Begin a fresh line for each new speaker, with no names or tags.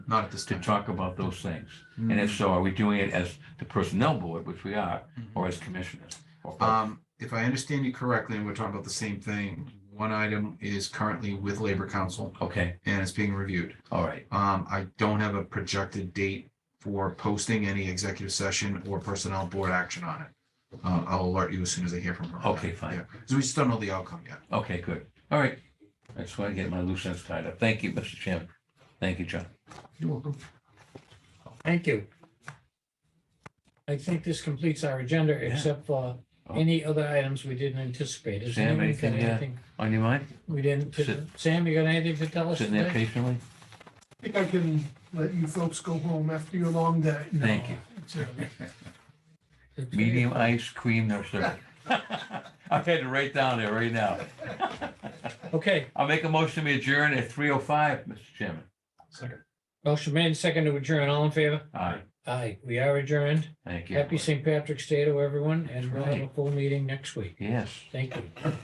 Not at this
to
time.
talk about those things?
Mm-hmm.
And if so, are we doing it as the personnel board, which we are,
Mhm.
or as commissioners? or both?
Um, if I understand you correctly, and we're talking about the same thing, one item is currently with Labor Council
Okay,
and it's being reviewed.
all right,
Um, I don't have a projected date for posting any executive session or personnel board action on it. Uh, I'll alert you as soon as I hear from her. on
Okay,
that.
fine.
Yeah. So we just don't know the outcome yet.
okay, good. All right. I just want to get my loose ends tied up. Thank you, Mr. Chairman. Thank you, John.
You're welcome.
Thank you. I think this completes our agenda,
Yeah.
except for
Oh.
any other items we didn't anticipate. Is
Sam,
anyone got
anything, uh,
anything
On your mind?
We didn't,
Sit-
Sam, you got anything to tell us
Sitting there
today?
patiently?
I think I can let you folks go home after your long day.
Thank you.
Okay.
Medium ice cream, no sir. I've had it right down there right now.
Okay,
I'll make a motion to adjourn at three oh five, Mr. Chairman.
motion made, second to adjourn, all in favor?
All right,
Aye, we are adjourned.
thank you.
Happy St. Patrick's Day to everyone, and
That's
we'll have a
right.
full meeting next week.
Yes.
Thank you.